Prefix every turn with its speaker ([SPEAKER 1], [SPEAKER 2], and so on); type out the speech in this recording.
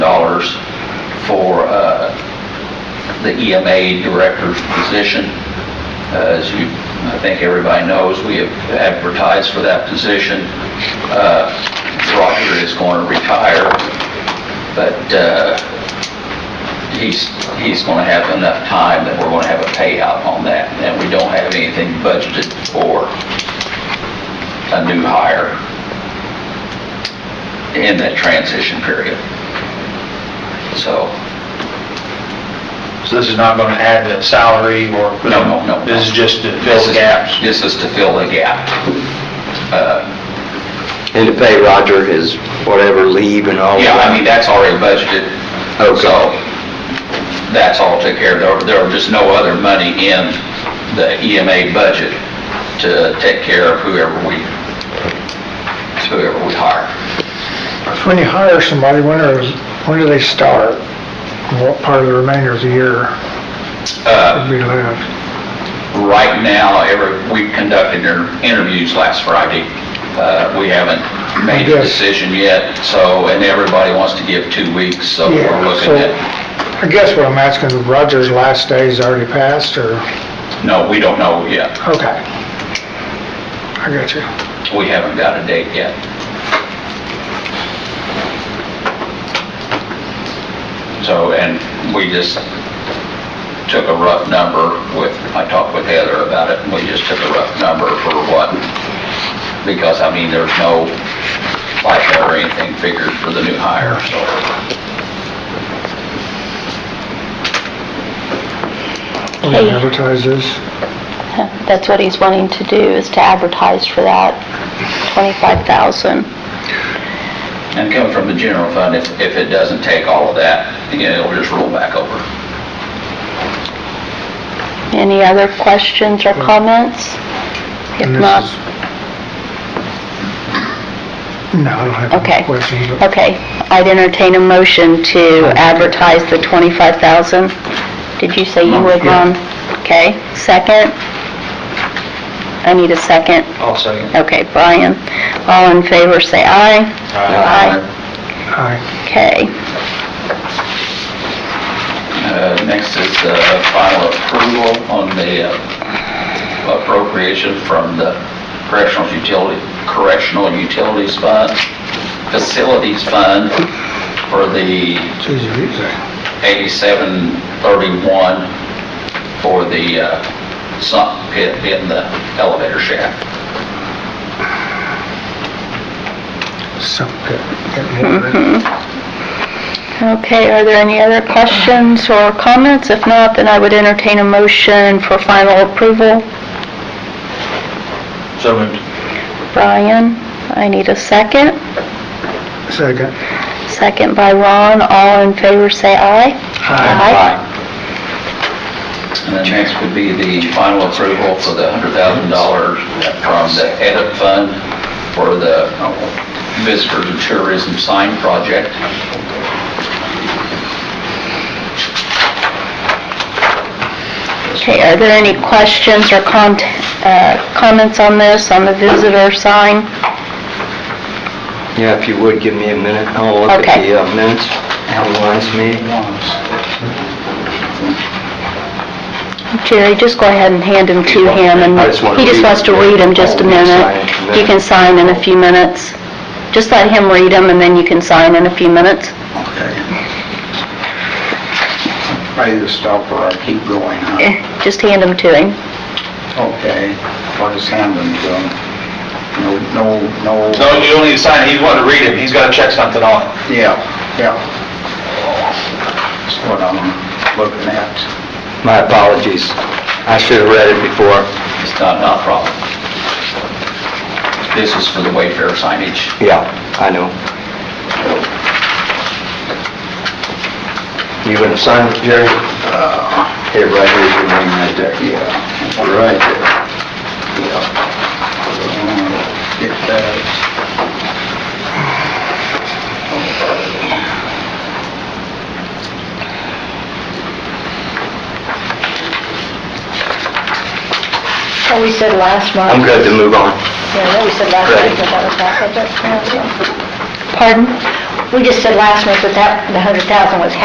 [SPEAKER 1] uh, the EMA director's position. Uh, As you, I think everybody knows, we have advertised for that position. Uh, Roger is going to retire, but uh, he's, he's going to have enough time that we're going to have a payout on that, and we don't have anything budgeted for a new hire in that transition period. So,
[SPEAKER 2] So this is not going to add to salary or...
[SPEAKER 1] No, no, no.
[SPEAKER 2] This is just to fill the gaps.
[SPEAKER 1] this is to fill the gap. Uh,
[SPEAKER 3] And to pay Roger his whatever leave and all
[SPEAKER 1] Yeah, I mean,
[SPEAKER 3] that?
[SPEAKER 1] that's already budgeted, so
[SPEAKER 3] Okay.
[SPEAKER 1] that's all taken care of. There- There was just no other money in the EMA budget to take care of whoever we, whoever we hire.
[SPEAKER 4] When you hire somebody, when is, when do they start? What part of the remainder of the year
[SPEAKER 1] Uh,
[SPEAKER 4] would be left?
[SPEAKER 1] Right now, every, we conducted their interviews last Friday. Uh, We haven't made a
[SPEAKER 4] Yes.
[SPEAKER 1] decision yet, so, and everybody wants to give two weeks, so we're
[SPEAKER 4] Yeah,
[SPEAKER 1] looking
[SPEAKER 4] so,
[SPEAKER 1] at,
[SPEAKER 4] I guess what I'm asking, Roger's last day's already passed, or,
[SPEAKER 1] no, we don't know yet.
[SPEAKER 4] okay. I got you.
[SPEAKER 1] We haven't got a date yet. So, and we just took a rough number with, I talked with Heather about it, and we just took a rough number for what, because, I mean, there's no FICA or anything figured for the new hire, so.
[SPEAKER 4] Will you advertise this?
[SPEAKER 5] That's what he's wanting to do, is to advertise for that, 25,000.
[SPEAKER 1] And coming from the general fund, if, if it doesn't take all of that, you know, it'll just roll back over.
[SPEAKER 5] Any other questions or comments? If
[SPEAKER 4] And Hmm. this
[SPEAKER 5] not,
[SPEAKER 4] is- No, I don't have
[SPEAKER 5] Okay.
[SPEAKER 4] any questions. but-
[SPEAKER 5] okay, I'd entertain a motion to advertise the 25,000. Did you say you would, Ron? Okay, second? I need a second.
[SPEAKER 2] I'll second.
[SPEAKER 5] Okay, Brian, all in favor, say aye.
[SPEAKER 4] Aye.
[SPEAKER 5] Okay.
[SPEAKER 1] Uh, Next is the final approval on the uh, appropriation from the correctional utility, correctional utilities fund, facilities fund for the
[SPEAKER 4] It's easy to say.
[SPEAKER 1] 8731 for the uh, sump pit in the elevator shaft.
[SPEAKER 4] Some pit.
[SPEAKER 5] Okay, are there any other questions or comments? If not, then I would entertain a motion for final approval.
[SPEAKER 2] So moved.
[SPEAKER 5] Brian, I need a second.
[SPEAKER 4] Second.
[SPEAKER 5] Second by Ron, all in favor say aye. Aye.
[SPEAKER 1] And then next would be the final approval for the $100,000 from the edit fund for the visitors and tourism sign project.
[SPEAKER 5] Okay, are there any questions or con- uh, comments on this, on the visitor sign?
[SPEAKER 3] Yeah, if you would, give me a minute, I'll look at
[SPEAKER 5] Okay.
[SPEAKER 3] the uh, minutes, analyze me.
[SPEAKER 5] Jerry, just go ahead and hand them to him, and
[SPEAKER 3] I just wanna
[SPEAKER 5] he just
[SPEAKER 3] read
[SPEAKER 5] wants to
[SPEAKER 3] them.
[SPEAKER 5] read them just a
[SPEAKER 3] Oh, you can
[SPEAKER 5] minute.
[SPEAKER 3] sign in a few
[SPEAKER 5] You can
[SPEAKER 3] minutes.
[SPEAKER 5] sign in a few minutes. Just let him read them, and then you can sign in a few minutes.
[SPEAKER 6] I either stop or I keep going, huh?
[SPEAKER 5] Eh, Just hand them to him.
[SPEAKER 6] Okay, I'll just hand them to him. No, no, no,
[SPEAKER 2] No, you don't need to sign it, he's wanting to read it, he's got to check something on it.
[SPEAKER 6] yeah, yeah. That's what I'm looking at.
[SPEAKER 3] My apologies, I should have read it before.
[SPEAKER 1] It's not, not a problem. This is for the Wayfair signage.
[SPEAKER 3] Yeah, I know. You gonna sign it, Jerry?
[SPEAKER 1] Uh,
[SPEAKER 3] Here, right here's your name right there.
[SPEAKER 6] Yeah.
[SPEAKER 3] Right there.
[SPEAKER 6] Uh, Get that.
[SPEAKER 5] Oh, we said last month.
[SPEAKER 3] I'm good to move on.
[SPEAKER 5] Yeah, we said last
[SPEAKER 3] month
[SPEAKER 5] that that was half of it. Pardon? We just said last month that that, the 100,000 was